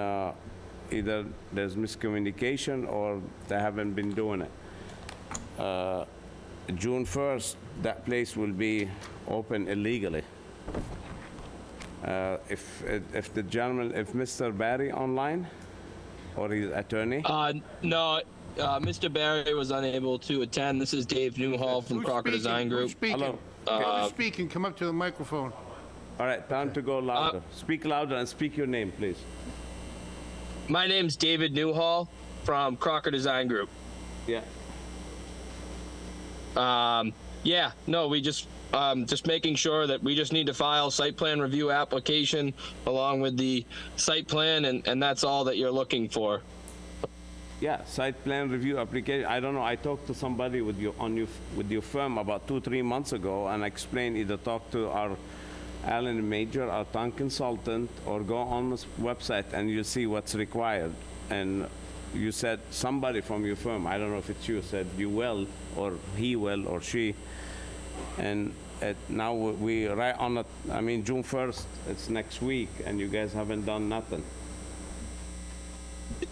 uh, either there's miscommunication or they haven't been doing it. Uh, June 1st, that place will be open illegally. Uh, If, if the gentleman, if Mr. Barry online or his attorney? Uh, no, uh, Mr. Barry was unable to attend. This is Dave Newhall from Who's Crocker Design speaking? Group. Uh, Who's speaking? Hello. Who's speaking? Come up to the microphone. All right, time to go louder. Speak louder and speak your name, please. My name's David Newhall from Crocker Design Group. Yeah. Um, yeah, no, we just um, just making sure that we just need to file site plan review application along with the site plan, and, and that's all that you're looking for. Yeah, site plan review application, I don't know, I talked to somebody with your, on your, with your firm about two, three months ago, and I explained either talk to our Allen Major, our town consultant, or go on this website and you see what's required. And you said, somebody from your firm, I don't know if it's you, said you will, or he will, or she. And it, now we- we right on it, I mean, June 1st, it's next week, and you guys haven't done nothing.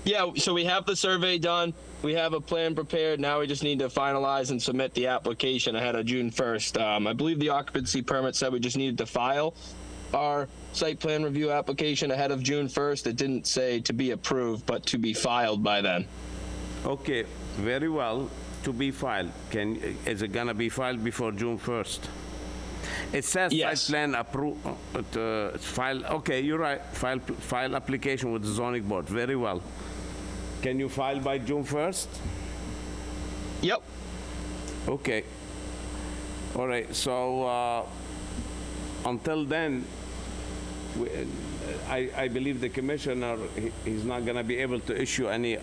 Yeah, so we have the survey done. We have a plan prepared. Now we just need to finalize and submit the application ahead of June 1st. Um, I believe the occupancy permit said we just needed to file our site plan review application ahead of June 1st. It didn't say to be approved, but to be filed by then. Okay, very well, to be filed. Can, is it gonna be filed before June 1st? It says site Yes. plan appro, uh, uh, file, okay, you're right, file, file application with the zoning board, very well. Can you file by June 1st? Yep. Okay. All right, so, uh, until then, we- I, I believe the commissioner, he- he's not gonna be able to issue any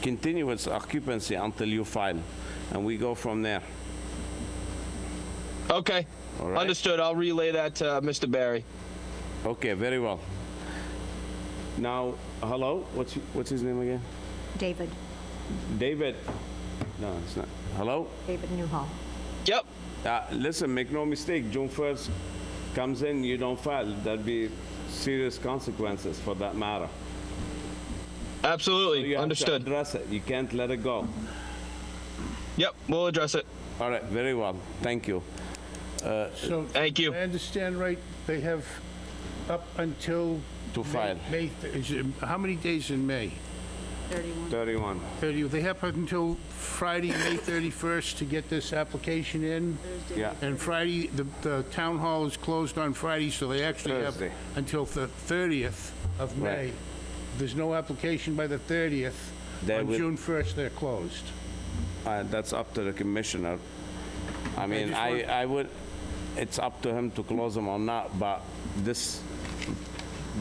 continuous occupancy until you file, and we go from there. Okay. All right. Understood. I'll relay that to Mr. Barry. Okay, very well. Now, hello, what's, what's his name again? David, David? No, it's not. Hello? David Newhall. Yep. Uh, Listen, make no mistake, June 1st comes in, you don't file, there'll be serious consequences for that matter. Absolutely. You have to Understood. address it, you can't let it go. Yep. We'll address it. All right, very well, thank you. So, Thank you. I understand right, they have up until... To May- file. May, is it- how many days in May? 31. 30, they have up until Friday, May 31st to get this application in? Yeah, And Friday, the, the town hall is closed on Friday, so they actually have Thursday. until the 30th of Right. May. If There's no application by the 30th. They On will- June 1st, they're closed. uh, that's up to the commissioner. I mean, just I, want- I would, it's up to him to close them or not, but this,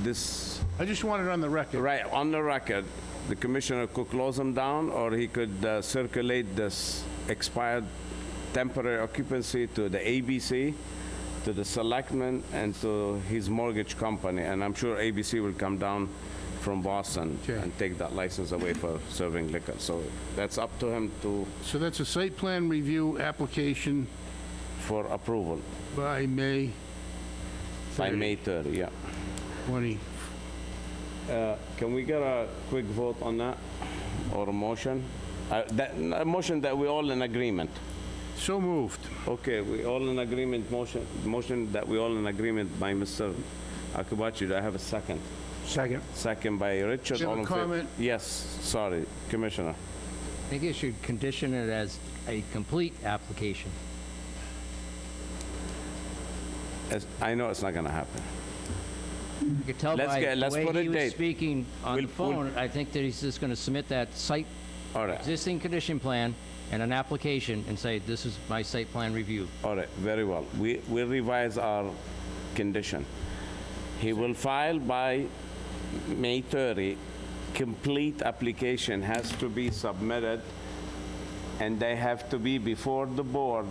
this I just want it on the record. Right, on the record, the commissioner could close them down, or he could uh, circulate this expired temporary occupancy to the ABC, to the selectmen, and to his mortgage company, and I'm sure ABC will come down from Boston Okay. and take that license away for serving liquor, so that's up to him to, So that's a site plan review application for approval, by May by May 30, yeah. 20. Uh, Can we get a quick vote on that, or a motion? Uh, That, a motion that we're all in agreement. So moved. Okay, we all in agreement, motion, motion that we all in agreement by Mr. Akabachi. Do I have a second? Second. Second by Richard. Do you have all a in favor? comment? Yes, sorry, Commissioner. I think you should condition it as a complete application. As- I know it's not gonna happen. You could tell Let's by get- the let's put a way he date. was speaking on the We'll- we'll- phone, I think that he's just going to submit that site, All right, existing condition plan and an application and say, this is my site plan review. all right, very well. We, we revise our condition. He will file by May 30. Complete application has to be submitted, and they have to be before the board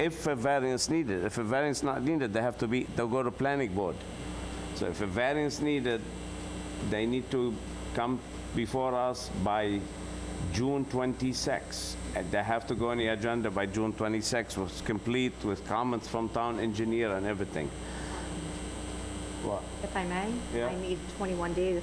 if a variance needed. If a variance not needed, they have to be, they'll go to planning board. So if a variance needed, they need to come before us by June 26. And they have to go on the agenda by June 26, was complete with comments from town engineer and everything. What? If I may? Yeah. I need 21 days